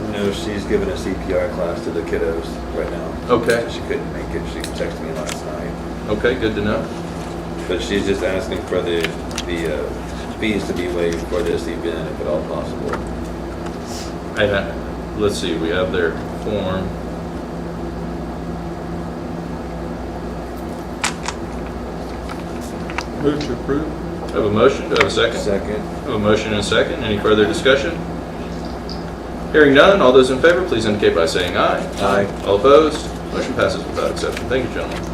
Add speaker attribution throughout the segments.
Speaker 1: No, she's giving a CPR class to the kiddos right now.
Speaker 2: Okay.
Speaker 1: So She couldn't make it, she texted me last night.
Speaker 2: Okay, good to know.
Speaker 1: But she's just asking for the, the uh, fees to be waived for this event if at all possible.
Speaker 2: I ha let's see, we have their form. Move to approve. Have a motion, do I have a second?
Speaker 1: Second,
Speaker 2: Have a motion and a second, any further discussion? Hearing none, all those in favor, please indicate by saying aye.
Speaker 1: Aye.
Speaker 2: All opposed, motion passes without exception. Thank you, gentlemen.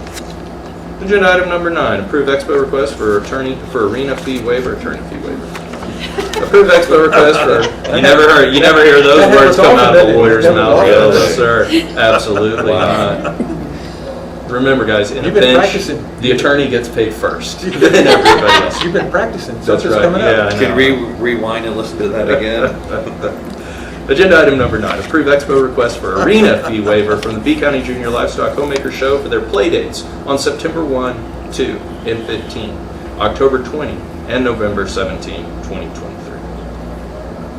Speaker 2: Agenda item number nine, approve expo request for attorney, for arena fee waiver, attorney fee waiver. Approve expo request for, you never heard, you never hear those
Speaker 3: That
Speaker 2: words come
Speaker 3: happens
Speaker 2: out of
Speaker 3: often,
Speaker 2: a lawyer's
Speaker 3: doesn't it?
Speaker 2: mouth.
Speaker 3: That
Speaker 2: No,
Speaker 3: happens
Speaker 1: often,
Speaker 2: sir, absolutely
Speaker 1: Wow.
Speaker 2: not. Remember, guys, in a
Speaker 3: You've been
Speaker 2: bench,
Speaker 3: practicing.
Speaker 2: the attorney gets paid first, then everybody else.
Speaker 3: You've been practicing since
Speaker 2: That's
Speaker 3: it's
Speaker 2: right,
Speaker 3: coming
Speaker 2: yeah.
Speaker 3: up.
Speaker 2: I
Speaker 1: can
Speaker 2: know.
Speaker 1: we rewind and listen to that again?
Speaker 2: Agenda item number nine, approve expo request for arena fee waiver from the B County Junior Livestock Homemaker Show for their play dates on September 1, 2, and 15, October 20, and November 17, 2023.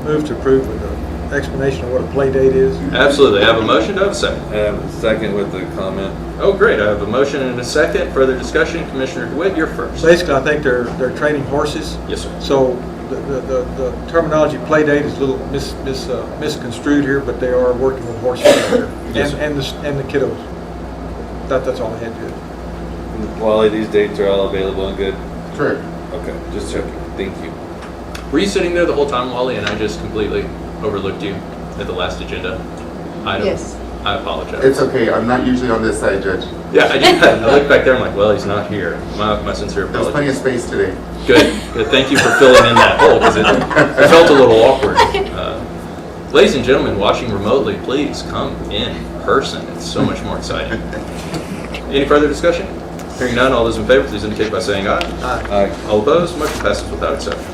Speaker 3: Move to approve with an explanation of what a play date is.
Speaker 2: Absolutely, I have a motion, do I have a second?
Speaker 1: Um, Second with the comment,
Speaker 2: Oh, great, I have a motion and a second, further discussion, Commissioner DeWitt, you're first.
Speaker 3: Basically, I think they're, they're training horses.
Speaker 2: Yes, sir.
Speaker 3: So the- the, the the terminology play date is a little mis, mis, uh, misconstrued here, but they are working with horses out there.
Speaker 2: Yes,
Speaker 3: And,
Speaker 2: sir.
Speaker 3: and the, s- and the kiddos. That, that's all I had to
Speaker 1: Wally, these dates are all available and good?
Speaker 4: Correct.
Speaker 1: Okay, just checking, thank you.
Speaker 2: Were you sitting there the whole time, Wally, and I just completely overlooked you at the last agenda item?
Speaker 5: Yes.
Speaker 2: I apologize.
Speaker 4: It's okay, I'm not usually on this side, Judge.
Speaker 2: Yeah, I did. I looked back there. I'm like, well, he's not here. My, my sincere
Speaker 4: There's plenty of
Speaker 2: apologies.
Speaker 4: space today.
Speaker 2: Good. Good. Thank you for filling in that hole because it, it felt a little awkward. Uh, ladies and gentlemen, watching remotely, please come in person. It's so much more exciting. Any further discussion? Hearing none, all those in favor, please indicate by saying aye.
Speaker 3: add.
Speaker 1: Aye.
Speaker 2: All opposed, motion passes without exception.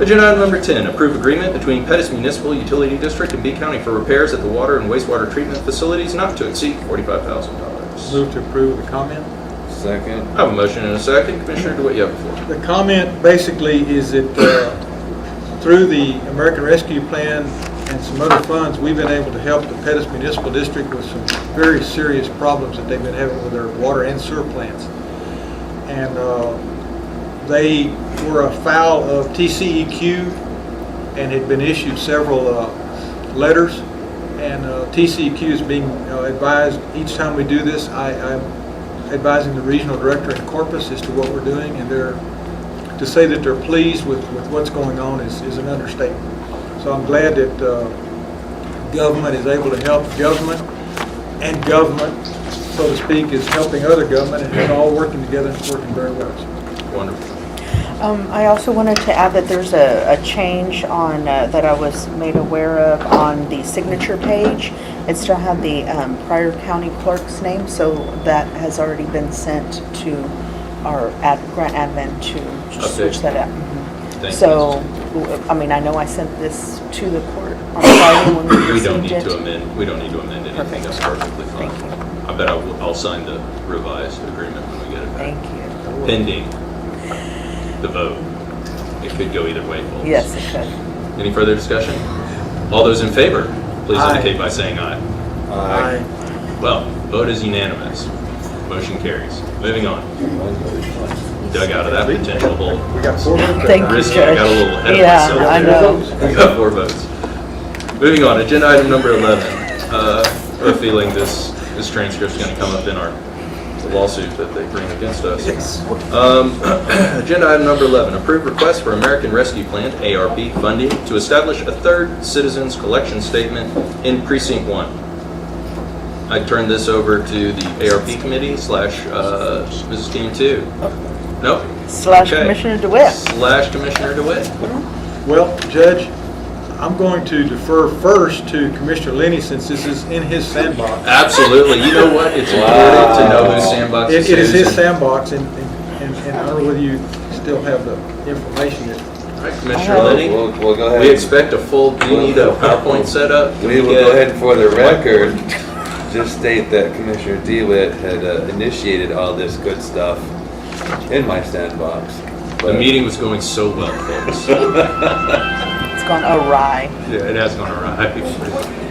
Speaker 2: Agenda item number 10, approve agreement between Pettus Municipal Utility District and B County for repairs at the water and wastewater treatment facilities not to exceed $45,000.
Speaker 3: Move to approve with a comment.
Speaker 1: Second,
Speaker 2: I have a motion and a second. Commissioner DeWitt, you have the floor.
Speaker 3: The comment basically is that uh, through the American Rescue Plan and some other funds, we've been able to help the Pettus Municipal District with some very serious problems that they've been having with their water and sewer plants. And uh, they were afoul of TCEQ and had been issued several uh, letters. And uh, TCEQ is being uh, advised, each time we do this, I- I'm advising the regional director in Corpus as to what we're doing, and they're, to say that they're pleased with, with what's going on is, is an understatement. So I'm glad that uh, government is able to help government, and government, so to speak, is helping other government, and they're all working together and it's working very well.
Speaker 2: Wonderful.
Speaker 5: Um, I also wanted to add that there's a, a change on, uh, that I was made aware of on the signature page. It still had the, um, prior county clerk's name, so that has already been sent to our ad, grant admin to switch
Speaker 2: Update.
Speaker 5: that up.
Speaker 2: Thank
Speaker 5: So, I mean, I know I sent this to the court on Friday when we
Speaker 2: We don't
Speaker 5: received
Speaker 2: need
Speaker 5: it.
Speaker 2: to amend, we don't need to amend anything.
Speaker 5: Perfect.
Speaker 2: That's perfectly fine.
Speaker 5: Thank you.
Speaker 2: I bet I will, I'll sign the revised agreement when we get it
Speaker 5: Thank
Speaker 2: back.
Speaker 5: you.
Speaker 2: Pending the vote. It could go either way, folks.
Speaker 5: Yes, it could.
Speaker 2: Any further discussion? All those in favor, please
Speaker 3: Aye.
Speaker 2: indicate by saying aye.
Speaker 1: aye.
Speaker 2: Well, vote is unanimous. Motion carries. Moving on. Dug out of that potential hole.
Speaker 3: We got four minutes.
Speaker 5: Thank you,
Speaker 2: Risky, I got a
Speaker 5: Judge.
Speaker 2: little ahead of
Speaker 5: Yeah,
Speaker 2: myself.
Speaker 5: I know.
Speaker 2: We got four votes. Moving on, agenda item number 11. Uh, I have a feeling this, this transcript's going to come up in our lawsuit that they bring against us. Um, Agenda item number 11, approve request for American Rescue Plan, ARP, funding to establish a third citizens collection statement in precinct one. I turn this over to the ARP committee slash uh, Mrs. Team Two. Nope?
Speaker 5: Slash
Speaker 2: Okay.
Speaker 5: Commissioner DeWitt.
Speaker 2: Slash Commissioner DeWitt.
Speaker 3: Well, Judge, I'm going to defer first to Commissioner Lenny since this is in his sandbox.
Speaker 2: Absolutely. You know what? It's important to know who sandbox
Speaker 3: It
Speaker 2: is.
Speaker 3: it is his sandbox, and, and and I don't know whether you still have the information that,
Speaker 2: All right, Commissioner
Speaker 5: Oh.
Speaker 2: Lenny,
Speaker 1: We'll, we'll go ahead.
Speaker 2: we expect a full, do you need a PowerPoint setup? Can
Speaker 1: We will
Speaker 2: get-
Speaker 1: go ahead and for the record, just state that Commissioner DeWitt had uh, initiated all this good stuff in my sandbox.
Speaker 2: The
Speaker 1: but-
Speaker 2: meeting was going so well, folks. Yeah,
Speaker 5: It's gone awry.
Speaker 2: it has gone awry.